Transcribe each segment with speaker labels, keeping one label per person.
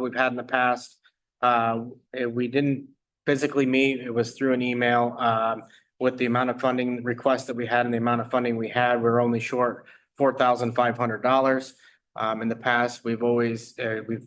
Speaker 1: we've had in the past. Uh, eh, we didn't physically meet, it was through an email, um, with the amount of funding requests that we had and the amount of funding we had, we're only short four thousand five hundred dollars. Um, in the past, we've always, uh, we've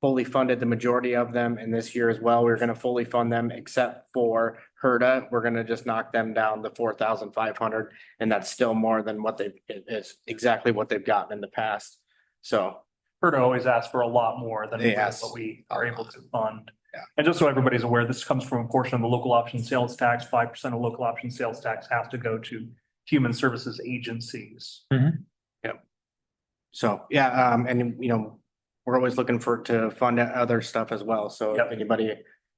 Speaker 1: fully funded the majority of them, and this year as well, we're gonna fully fund them except for Herda. We're gonna just knock them down to four thousand five hundred, and that's still more than what they've, it is exactly what they've gotten in the past. So
Speaker 2: Herta always asks for a lot more than
Speaker 1: Yes.
Speaker 2: what we are able to fund.
Speaker 1: Yeah.
Speaker 2: And just so everybody's aware, this comes from a portion of the local option sales tax. Five percent of local option sales tax has to go to human services agencies.
Speaker 1: Hmm. So, yeah, um, and you know, we're always looking for, to fund other stuff as well. So if
Speaker 2: Yep.
Speaker 1: anybody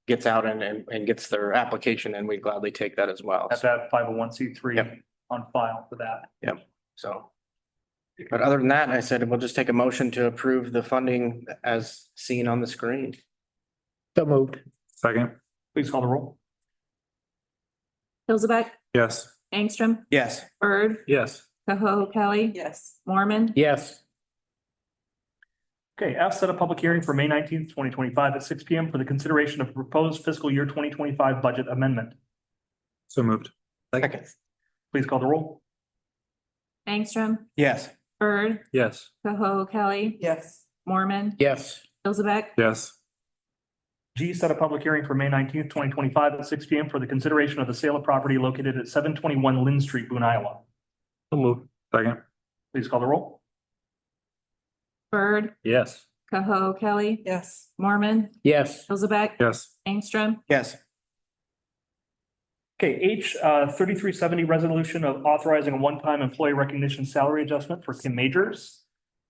Speaker 1: gets out and, and, and gets their application and we gladly take that as well.
Speaker 2: Have to have five oh one C three
Speaker 1: Yep.
Speaker 2: on file for that.
Speaker 1: So. But other than that, I said, we'll just take a motion to approve the funding as seen on the screen.
Speaker 3: So moved.
Speaker 4: Second,
Speaker 2: Please call the roll.
Speaker 5: Hillsaback,
Speaker 4: yes.
Speaker 5: Angstrom,
Speaker 1: Yes.
Speaker 5: Bird,
Speaker 4: Yes.
Speaker 5: Koho Kelly,
Speaker 6: yes,
Speaker 5: Mormon,
Speaker 3: Yes,
Speaker 2: Okay, F set a public hearing for May nineteenth, twenty twenty-five at six P M for the consideration of proposed fiscal year twenty twenty-five budget amendment.
Speaker 4: So moved.
Speaker 1: Second.
Speaker 2: Please call the roll.
Speaker 5: Angstrom,
Speaker 1: Yes.
Speaker 5: Bird,
Speaker 4: Yes.
Speaker 5: Koho Kelly,
Speaker 6: yes,
Speaker 5: Mormon,
Speaker 3: yes,
Speaker 5: Hillsaback,
Speaker 4: Yes.
Speaker 2: G set a public hearing for May nineteenth, twenty twenty-five at six P M for the consideration of the sale of property located at seven twenty-one Lynn Street, Boone, Iowa.
Speaker 4: So moved. Second.
Speaker 2: Please call the roll.
Speaker 5: Bird,
Speaker 4: Yes.
Speaker 5: Koho Kelly,
Speaker 6: yes,
Speaker 5: Mormon,
Speaker 3: yes,
Speaker 5: Hillsaback,
Speaker 4: Yes.
Speaker 5: Angstrom,
Speaker 1: Yes.
Speaker 2: Okay, H, uh, thirty-three seventy resolution of authorizing a one-time employee recognition salary adjustment for Kim Majors.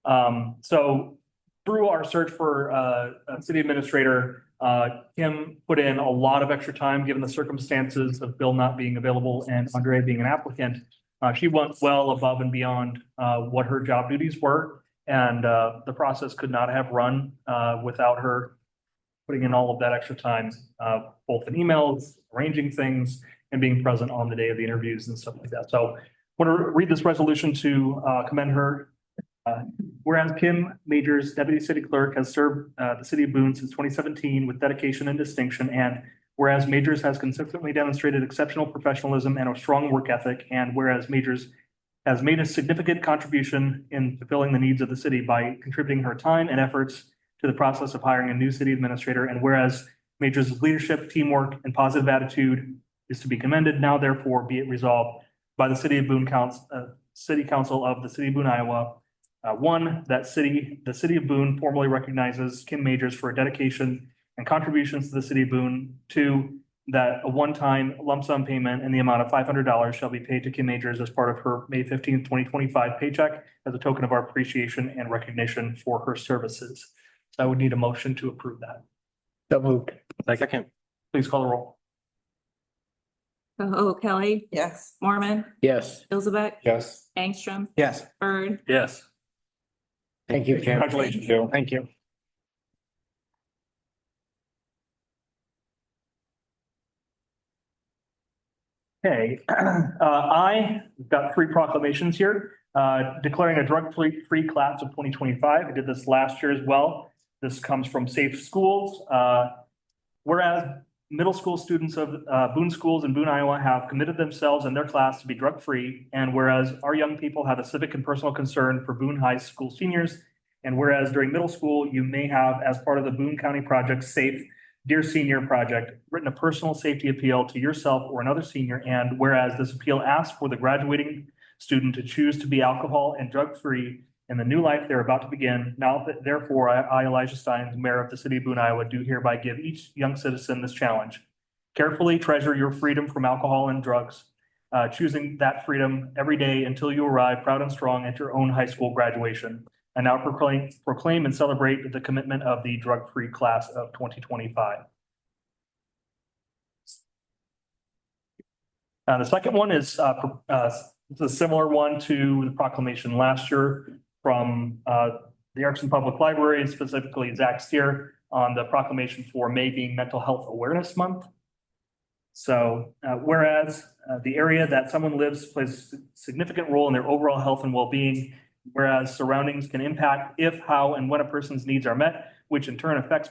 Speaker 2: Um, so through our search for, uh, a city administrator, uh, Kim put in a lot of extra time, given the circumstances of Bill not being available and Andre being an applicant. Uh, she went well above and beyond, uh, what her job duties were. And, uh, the process could not have run, uh, without her putting in all of that extra time, uh, both in emails, arranging things, and being present on the day of the interviews and stuff like that. So want to read this resolution to uh, commend her. Uh, Whereas Kim Majors, Deputy City Clerk, has served uh, the city of Boone since twenty seventeen with dedication and distinction. And whereas Majors has consistently demonstrated exceptional professionalism and a strong work ethic. And whereas Majors has made a significant contribution in fulfilling the needs of the city by contributing her time and efforts to the process of hiring a new city administrator. And whereas Majors' leadership, teamwork, and positive attitude is to be commended. Now therefore be it resolved by the City of Boone Council, uh, City Council of the City of Boone, Iowa. Uh, one, that city, the City of Boone formally recognizes Kim Majors for her dedication and contributions to the City of Boone. Two, that a one-time lump sum payment in the amount of five hundred dollars shall be paid to Kim Majors as part of her May fifteenth, twenty twenty-five paycheck as a token of our appreciation and recognition for her services. So I would need a motion to approve that.
Speaker 3: so moved.
Speaker 1: Second.
Speaker 2: Please call the roll.
Speaker 5: Koho Kelly,
Speaker 6: yes,
Speaker 5: Mormon,
Speaker 3: Yes,
Speaker 5: Hillsaback,
Speaker 4: Yes.
Speaker 5: Angstrom,
Speaker 1: Yes.
Speaker 5: Bird,
Speaker 4: Yes.
Speaker 3: thank you, Kim.
Speaker 2: Congratulations.
Speaker 1: Thank you.
Speaker 2: Okay, uh, I, we've got three proclamations here, uh, declaring a drug-free, free class of twenty twenty-five. I did this last year as well. This comes from Safe Schools. Uh, whereas middle school students of, uh, Boone Schools in Boone, Iowa have committed themselves and their class to be drug-free. And whereas our young people have a civic and personal concern for Boone High School seniors. And whereas during middle school, you may have, as part of the Boone County Project Safe Dear Senior Project, written a personal safety appeal to yourself or another senior, and whereas this appeal asks for the graduating student to choose to be alcohol and drug-free in the new life they're about to begin, now that therefore I, I, Elijah Stein, Mayor of the City of Boone, Iowa, do hereby give each young citizen this challenge. Carefully treasure your freedom from alcohol and drugs, uh, choosing that freedom every day until you arrive proud and strong at your own high school graduation. And now proclaim, proclaim and celebrate the commitment of the drug-free class of twenty twenty-five. Uh, the second one is, uh, pro- uh, it's a similar one to the proclamation last year from, uh, the Erickson Public Library and specifically Zach Steer on the proclamation for May being Mental Health Awareness Month. So, uh, whereas, uh, the area that someone lives plays a significant role in their overall health and well-being, whereas surroundings can impact if, how, and when a person's needs are met. which in turn affects